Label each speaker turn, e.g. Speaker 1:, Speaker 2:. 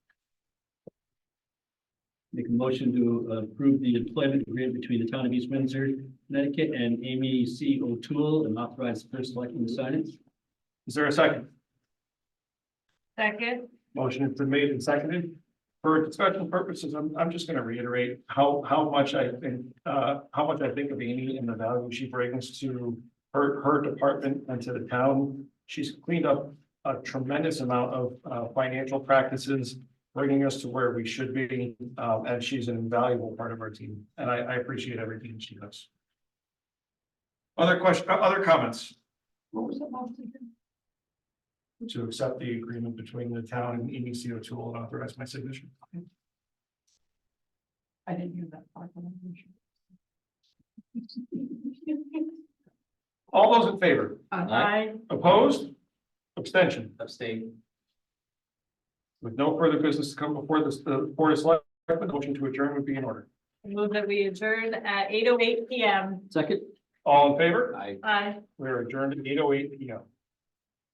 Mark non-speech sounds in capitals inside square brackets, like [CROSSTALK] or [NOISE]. Speaker 1: Make a motion to approve the employment agreement between the town of East Windsor, Connecticut and Amy C. O'Toole and authorize the first selectman to sign it.
Speaker 2: Is there a second?
Speaker 3: Second,
Speaker 2: Motion has been made and seconded. For discussion purposes, I'm, I'm just gonna reiterate how, how much I think, uh, how much I think of Amy and the value she brings to her, her department and to the town. She's cleaned up a tremendous amount of, uh, financial practices, bringing us to where we should be. Um, and she's an invaluable part of our team, and I, I appreciate everything she does. Other question, other comments? What was that last thing? to accept the agreement between the town and EDC O'Toole and authorize my signature.
Speaker 3: I didn't hear that part. but I'm sure.
Speaker 2: All those in favor,
Speaker 3: [LAUGHS] Aye.
Speaker 2: opposed, abstention,
Speaker 4: Abstain.
Speaker 2: with no further business to come before this, the board of selectmen, motion to adjourn would be in order.
Speaker 3: I Move that we adjourn at eight oh eight P M.
Speaker 1: Second.
Speaker 2: All in favor,
Speaker 4: Aye.
Speaker 3: Aye.
Speaker 2: we are adjourned at eight oh eight P M.